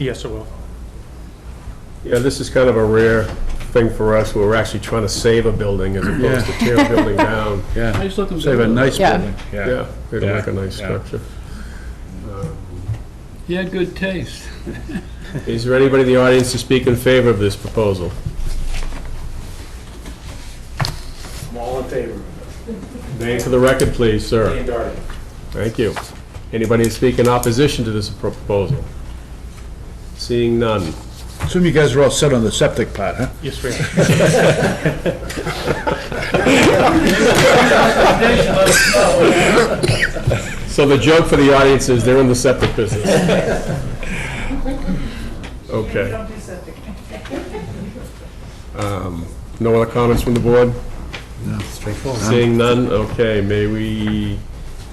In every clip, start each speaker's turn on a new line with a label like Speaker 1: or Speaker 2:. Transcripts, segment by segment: Speaker 1: Yes, it will.
Speaker 2: Yeah, this is kind of a rare thing for us, where we're actually trying to save a building as opposed to tear a building down.
Speaker 3: Yeah,
Speaker 4: just let them
Speaker 3: save a nice
Speaker 5: Yeah.
Speaker 3: building, yeah.
Speaker 2: Yeah, it'll make a nice
Speaker 3: Yeah.
Speaker 2: structure.
Speaker 4: He had good taste.
Speaker 2: Is there anybody in the audience to speak in favor of this proposal?
Speaker 6: I'm all in favor of
Speaker 2: Name for the record, please,
Speaker 6: it.
Speaker 2: sir.
Speaker 6: Dan Darden.
Speaker 2: Thank you. Anybody to speak in opposition to this pro- proposal? Seeing none.
Speaker 3: Assume you guys are all set on the septic part, huh?
Speaker 1: Yes, we are.
Speaker 2: So the joke for the audience is they're in the septic business. Okay. Um, No other comments from the board?
Speaker 3: Straightforward.
Speaker 2: Seeing none, okay, may we,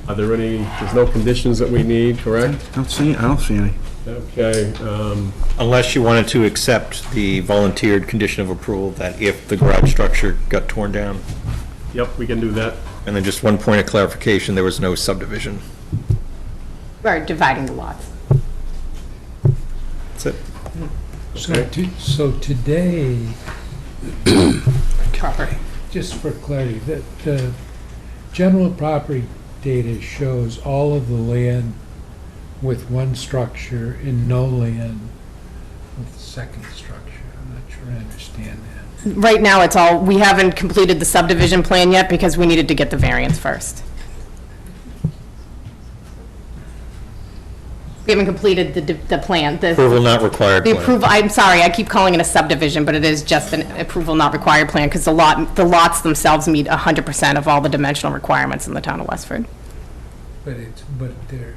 Speaker 2: are there any, there's no conditions that we need, correct?
Speaker 3: I don't see, I don't see any.
Speaker 2: Okay, um,
Speaker 7: Unless you wanted to accept the volunteered condition of approval that if the garage structure got torn down.
Speaker 2: yep, we can do that.
Speaker 7: And then just one point of clarification, there was no subdivision.
Speaker 5: Or dividing the lots.
Speaker 7: That's it.
Speaker 4: So, to- so today,
Speaker 5: Property.
Speaker 4: just for clarity, the, the general property data shows all of the land with one structure and no land with the second structure. I'm not sure I understand that.
Speaker 5: Right now, it's all, we haven't completed the subdivision plan yet because we needed to get the variance first. We haven't completed the, d- the plan, the,
Speaker 7: Approval not required.
Speaker 5: the
Speaker 7: plan.
Speaker 5: approval, I'm sorry, I keep calling it a subdivision, but it is just an approval not required plan because the lot, the lots themselves meet 100% of all the dimensional requirements in the town of Westford.
Speaker 4: But it's, but there,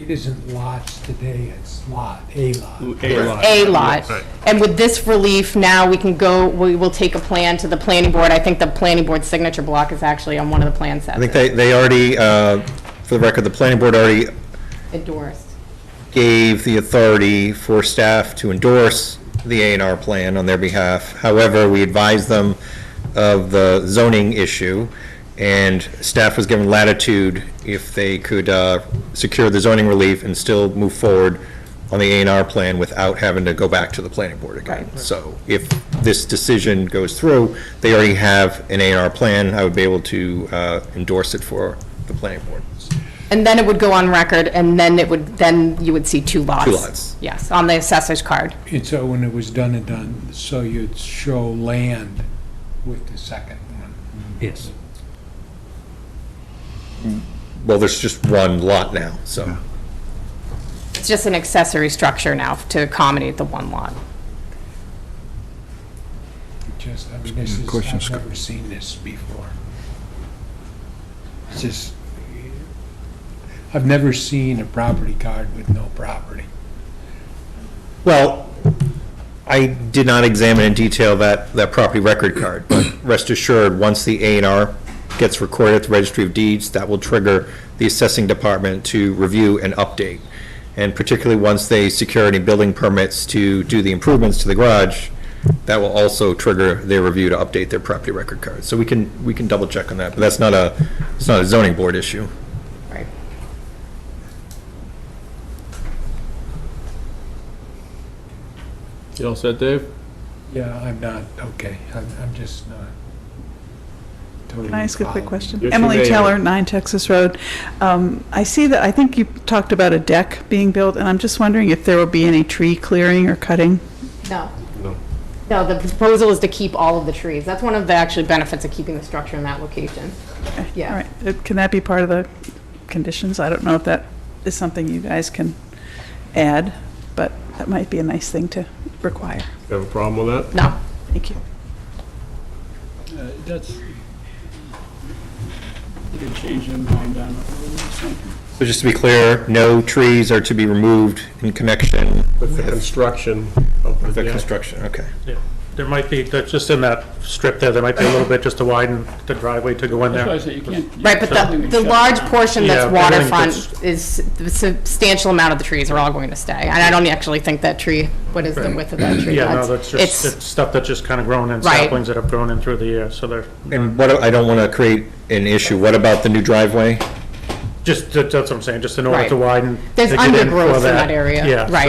Speaker 4: it isn't lots today, it's lot, a lot.
Speaker 5: a lot. And with this relief, now we can go, we will take a plan to the planning board. I think the planning board signature block is actually on one of the plan
Speaker 7: I think
Speaker 5: sets
Speaker 7: they, they already, uh, for the record, the planning board already
Speaker 5: endorsed.
Speaker 7: gave the authority for staff to endorse the A and R plan on their behalf. However, we advised them of the zoning issue, and staff was given latitude if they could uh, secure the zoning relief and still move forward on the A and R plan without having to go back to the planning board again. So if this decision goes through, they already have an A and R plan, I would be able to uh, endorse it for the planning board.
Speaker 5: And then it would go on record, and then it would, then you would see two lots.
Speaker 7: Two lots.
Speaker 5: Yes, on the assessor's card.
Speaker 4: And so oh, when it was done and done, so you'd show land with the second one.
Speaker 8: Yes.
Speaker 7: Well, there's just one lot now, so.
Speaker 5: It's just an accessory structure now to accommodate the one lot.
Speaker 4: Just, I mean, this is, I've never seen this before. It's just, I've never seen a property card with no property.
Speaker 7: Well, I did not examine in detail that, that property record card, but rest assured, once the A and R gets recorded at the Registry of Deeds, that will trigger the assessing department to review and update. And particularly once they secure any building permits to do the improvements to the garage, that will also trigger their review to update their property record card. So we can, we can double check on that, but that's not a, it's not a zoning board issue.
Speaker 5: Right.
Speaker 2: You all set, Dave?
Speaker 4: Yeah, I'm not, okay, I'm, I'm just not totally.
Speaker 9: Can I ask a quick
Speaker 4: following.
Speaker 9: question?
Speaker 2: Yes, you may.
Speaker 9: Emily Taylor, 9 Texas Road. Um, I see that, I think you talked about a deck being built, and I'm just wondering if there will be any tree clearing or cutting?
Speaker 5: No.
Speaker 2: No.
Speaker 5: No, the proposal is to keep all of the trees. That's one of the actually benefits of keeping the structure in that location. Yeah.
Speaker 9: All right, Uh, can that be part of the conditions? I don't know if that is something you guys can add, but that might be a nice thing to require.
Speaker 2: Have a problem with that?
Speaker 5: No.
Speaker 9: Thank you.
Speaker 8: That's, you could change their mind on it.
Speaker 7: So just to be clear, no trees are to be removed in connection
Speaker 2: With the construction of
Speaker 7: with the
Speaker 2: the,
Speaker 7: construction, okay.
Speaker 1: There might be, that's just in that strip there, there might be a little bit just to widen the driveway to go in
Speaker 8: That's why I
Speaker 1: there.
Speaker 8: say you can't. you
Speaker 5: Right, but
Speaker 8: can't
Speaker 5: the,
Speaker 8: even
Speaker 5: the
Speaker 8: shut
Speaker 5: large
Speaker 8: it down.
Speaker 5: portion that's
Speaker 1: Yeah, everything
Speaker 5: waterfront is, the substantial amount of the trees are all going to stay. And I don't actually think that tree, what is the width of that tree?
Speaker 1: Yeah, no, that's just,
Speaker 5: It's,
Speaker 1: it's stuff that's just kind of grown in,
Speaker 5: Right.
Speaker 1: saplings that have grown in through the year, so they're
Speaker 7: And what, I don't want to create an issue, what about the new driveway?
Speaker 1: Just, that- that's what I'm saying, just in order
Speaker 5: Right.
Speaker 1: to widen.
Speaker 5: There's
Speaker 1: to get in for
Speaker 5: undergrowth in that area,
Speaker 1: Yeah, so-
Speaker 5: right.